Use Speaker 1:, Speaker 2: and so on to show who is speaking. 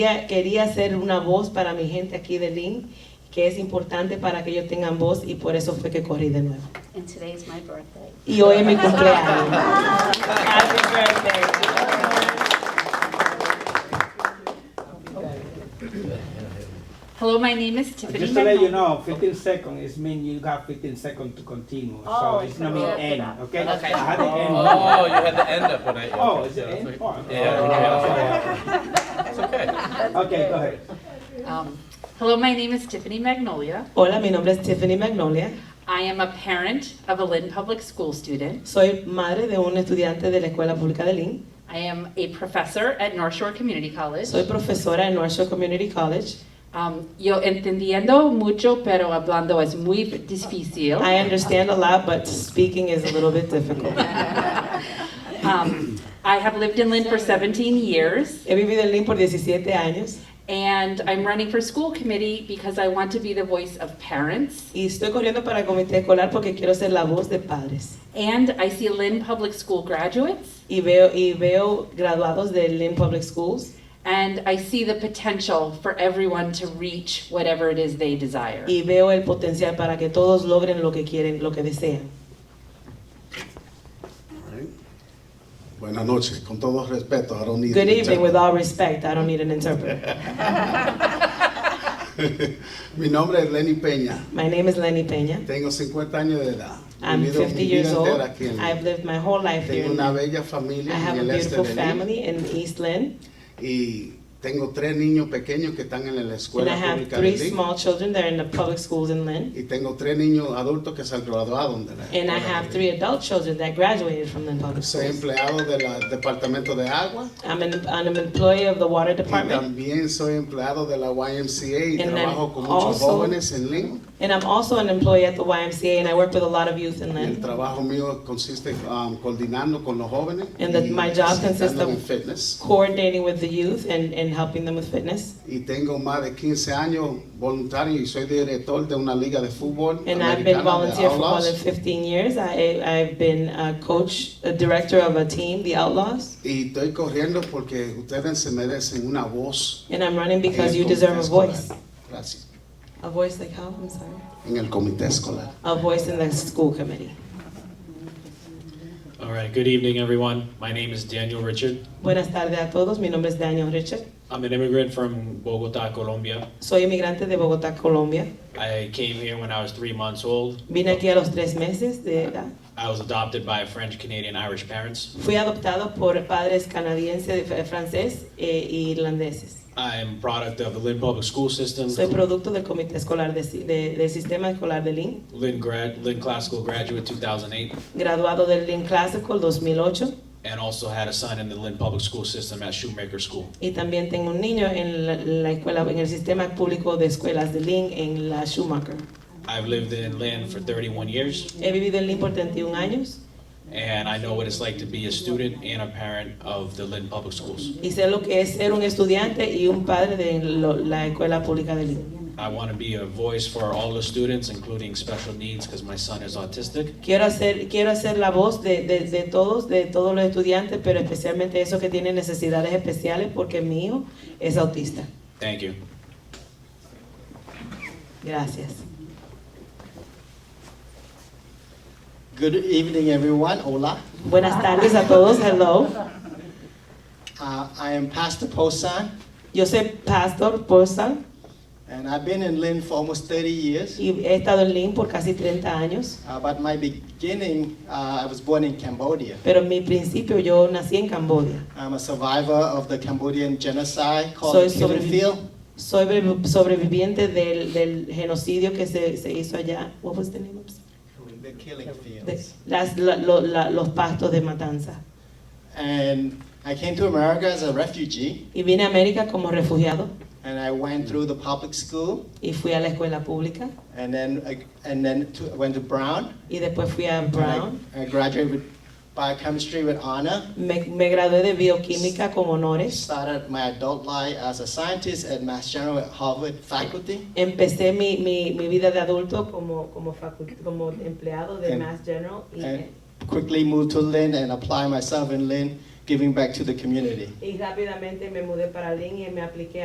Speaker 1: Quería, quería hacer una voz para mi gente aquí de Lynn, que es importante para que ellos tengan voz y por eso fue que corrí de nuevo.
Speaker 2: And today is my birthday.
Speaker 1: Y hoy es mi cumpleaños. Happy birthday.
Speaker 3: Hello, my name is Tiffany.
Speaker 4: Just to let you
Speaker 3: Manhattan.
Speaker 4: know, 15 seconds is mean you got 15 seconds to continue.
Speaker 2: Oh,
Speaker 4: so it's not
Speaker 2: so
Speaker 4: mean
Speaker 2: wrap it
Speaker 4: end,
Speaker 2: up.
Speaker 4: okay?
Speaker 1: Okay.
Speaker 4: I had the end.
Speaker 5: Oh, you had the end up when I.
Speaker 4: Oh, is it end? Oh,
Speaker 5: Yeah,
Speaker 4: oh,
Speaker 5: yeah.
Speaker 4: okay.
Speaker 5: It's okay.
Speaker 4: Okay, go ahead.
Speaker 3: Um, hello, my name is Tiffany Magnolia.
Speaker 1: Hola, mi nombre es Tiffany Magnolia.
Speaker 3: I am a parent of a Lynn Public School student.
Speaker 1: Soy madre de un estudiante de la Escuela Pública de Lynn.
Speaker 3: I am a professor at North Shore Community College.
Speaker 1: Soy profesora en North Shore Community College.
Speaker 3: Um, yo entendiendo mucho, pero hablando es muy difícil.
Speaker 1: I understand a lot, but speaking is a little bit difficult.
Speaker 3: Um, I have lived in Lynn for 17 years,
Speaker 1: He vivido en Lynn por 17 años
Speaker 3: and I'm running for school committee because I want to be the voice of parents.
Speaker 1: y estoy corriendo para el comité escolar porque quiero ser la voz de padres.
Speaker 3: And I see Lynn Public School graduates,
Speaker 1: Y veo, y veo graduados de Lynn Public Schools
Speaker 3: and I see the potential for everyone to reach whatever it is they desire.
Speaker 1: y veo el potencial para que todos logren lo que quieren, lo que desean.
Speaker 6: Alright. Buenas noches, con todo respeto, I don't need
Speaker 1: Good
Speaker 6: to
Speaker 1: evening,
Speaker 6: check.
Speaker 1: with all respect, I don't need an interpreter.
Speaker 6: Mi nombre es Lenny Peña,
Speaker 1: My name is Lenny Peña.
Speaker 6: tengo 50 años de edad.
Speaker 1: I'm
Speaker 6: Vivido
Speaker 1: 50
Speaker 6: mi vida
Speaker 1: years old.
Speaker 6: entera aquí en-
Speaker 1: I've lived my whole life here.
Speaker 6: Tengo
Speaker 1: in
Speaker 6: una
Speaker 1: Lynn.
Speaker 6: bella
Speaker 1: I
Speaker 6: familia
Speaker 1: have
Speaker 6: en
Speaker 1: a
Speaker 6: el este
Speaker 1: beautiful
Speaker 6: de Lima
Speaker 1: family in East Lynn,
Speaker 6: y tengo tres niños pequeños que están en la
Speaker 1: and I
Speaker 6: escuela
Speaker 1: have
Speaker 6: pública de
Speaker 1: three
Speaker 6: Lima
Speaker 1: small children that are in the public schools in Lynn,
Speaker 6: y tengo tres niños adultos que se han graduado de la
Speaker 1: and I
Speaker 6: escuela
Speaker 1: have
Speaker 6: de
Speaker 1: three
Speaker 6: Lima.
Speaker 1: adult children that graduated from Lynn Public
Speaker 6: Soy
Speaker 1: Schools.
Speaker 6: empleado del departamento de agua
Speaker 1: I'm an, I'm an employee of the water
Speaker 6: y
Speaker 1: department,
Speaker 6: también soy empleado de la YMCA y
Speaker 1: And I'm
Speaker 6: trabajo con muchos
Speaker 1: also-
Speaker 6: jóvenes en Lima.
Speaker 1: and I'm also an employee at the YMCA, and I work with a lot of youth in
Speaker 6: El
Speaker 1: Lynn.
Speaker 6: trabajo mío consiste um, coordinando con los jóvenes
Speaker 1: And that
Speaker 6: y
Speaker 1: my job consists
Speaker 6: estando
Speaker 1: of-
Speaker 6: en fitness.
Speaker 1: Coordinating with the youth and, and helping them with fitness.
Speaker 6: Y tengo más de 15 años voluntario y soy director de una liga de fútbol
Speaker 1: And
Speaker 6: americana
Speaker 1: I've been
Speaker 6: de
Speaker 1: volunteer for more
Speaker 6: Outlaws.
Speaker 1: than 15 years. I, I've been a coach, a director of a team, the Outlaws.
Speaker 6: Y estoy corriendo porque ustedes se merecen una voz.
Speaker 1: And I'm running
Speaker 6: en
Speaker 1: because
Speaker 6: el
Speaker 1: you deserve a
Speaker 6: comité escolar.
Speaker 1: voice.
Speaker 6: Gracias.
Speaker 1: A voice like how? I'm sorry.
Speaker 6: En el comité escolar.
Speaker 1: A voice in the school committee.
Speaker 7: All right, good evening, everyone. My name is Daniel Richard.
Speaker 1: Buenas tardes a todos. Mi nombre es Daniel Richard.
Speaker 7: I'm an immigrant from Bogota, Colombia.
Speaker 1: Soy inmigrante de Bogotá, Colombia.
Speaker 7: I came here when I was three months old.
Speaker 1: Vine aquí a los tres meses de edad.
Speaker 7: I was adopted by French, Canadian, Irish parents.
Speaker 1: Fui adoptado por padres canadienses, eh, francés e irlandeses.
Speaker 7: I'm product of the Lynn Public School System,
Speaker 1: Soy producto del comité escolar de, de- del sistema escolar de Lynn,
Speaker 7: Lynn grad, Lynn Classical graduate 2008,
Speaker 1: graduado del Lynn Classical 2008
Speaker 7: and also had a son in the Lynn Public School System at Shoemaker School.
Speaker 1: y también tengo un niño en la, la escuela en el sistema público de escuelas de Lynn en la Schumacher.
Speaker 7: I've lived in Lynn for 31 years,
Speaker 1: He vivido en Lynn por 31 años
Speaker 7: and I know what it's like to be a student and a parent of the Lynn Public Schools.
Speaker 1: y sé lo que es ser un estudiante y un padre de lo- la escuela pública de Lynn.
Speaker 7: I want to be a voice for all the students, including special needs, because my son is autistic.
Speaker 1: Quiero hacer, quiero hacer la voz de, de- de todos, de todos los estudiantes, pero especialmente esos que tienen necesidades especiales, porque mi hijo es autista.
Speaker 7: Thank you.
Speaker 1: Gracias.
Speaker 8: Good evening, everyone. Hola.
Speaker 1: Buenas tardes a todos, hello.
Speaker 8: Uh, I am Pastor Posan,
Speaker 1: Yo soy Pastor Porsan
Speaker 8: and I've been in Lynn for almost 30 years.
Speaker 1: y he estado en Lynn por casi 30 años,
Speaker 8: Uh, but my beginning, uh, I was born in Cambodia.
Speaker 1: pero en mi principio yo nací en Cambodia.
Speaker 8: I'm a survivor of the Cambodian genocide called
Speaker 1: Soy
Speaker 8: the Killing
Speaker 1: sobrevi-
Speaker 8: Field.
Speaker 1: Soy brev- sobreviviente del, del genocidio que se, se hizo allá. What was the name of it?
Speaker 8: The Killing
Speaker 1: De-
Speaker 8: Fields.
Speaker 1: las- la- lo- la- los pastos de matanza.
Speaker 8: And I came to America as a refugee,
Speaker 1: Y vine a América como refugiado.
Speaker 8: and I went through the public school,
Speaker 1: y fui a la escuela pública
Speaker 8: and then I, and then to, went to Brown.
Speaker 1: y después fui a
Speaker 8: and
Speaker 1: Brown.
Speaker 8: I, I graduated with biochemistry with honor.
Speaker 1: Me, me gradué de bioquímica con honores.
Speaker 8: started my adult life as a scientist at Mass General at Harvard faculty.
Speaker 1: Empecé mi, mi, mi vida de adulto como, como, facu- como empleado de
Speaker 8: And-
Speaker 1: Mass General y,
Speaker 8: and- Quickly moved to Lynn and applied myself in Lynn, giving back to the community.
Speaker 1: y rápidamente me mudé para Lynn y me apliqué